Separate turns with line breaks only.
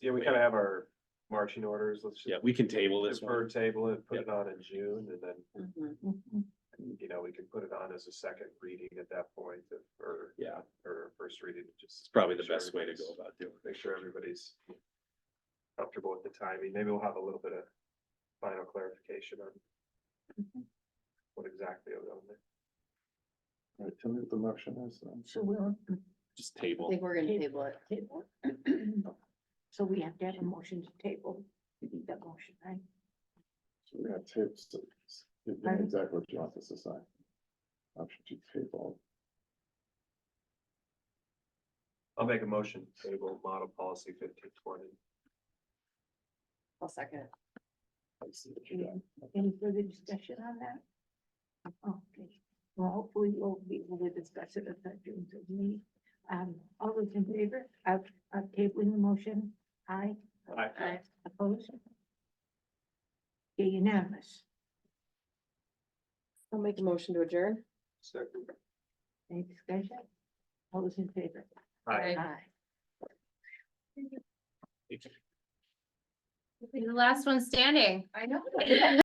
Yeah, we kind of have our marching orders, let's
Yeah,
just
we can table this
defer
one.
table it, put it on in June, and then,
Mhm.
you know, we can put it on as a second reading at that point, if- or,
Yeah,
or first reading, just.
it's probably the
make sure
best way to go
everybody's-
about doing it.
Make sure everybody's comfortable with the timing, maybe we'll have a little bit of final clarification on
Mhm.
what exactly we're on there.
Right, tell me what the motion is then.
So we'll,
Just
I
table.
think we're gonna table it.
table. So we have to have a motion to table that motion, right?
So we got tips. to- Give them
Pardon?
exactly what you want us to sign. Option two table.
I'll make a motion, to table model policy fifteen twenty.
I'll second it.
Let's see what you got.
Any further discussion on that? Okay, well, hopefully we'll be able to discuss it at that June third meeting. Um, all those in favor of, of tabling the motion, aye,
I,
opposed? Okay, unanimous.
I'll make a motion to adjourn.
second,
Any discussion? All those in favor?
I,
Aye.
You're The last one standing.
I know.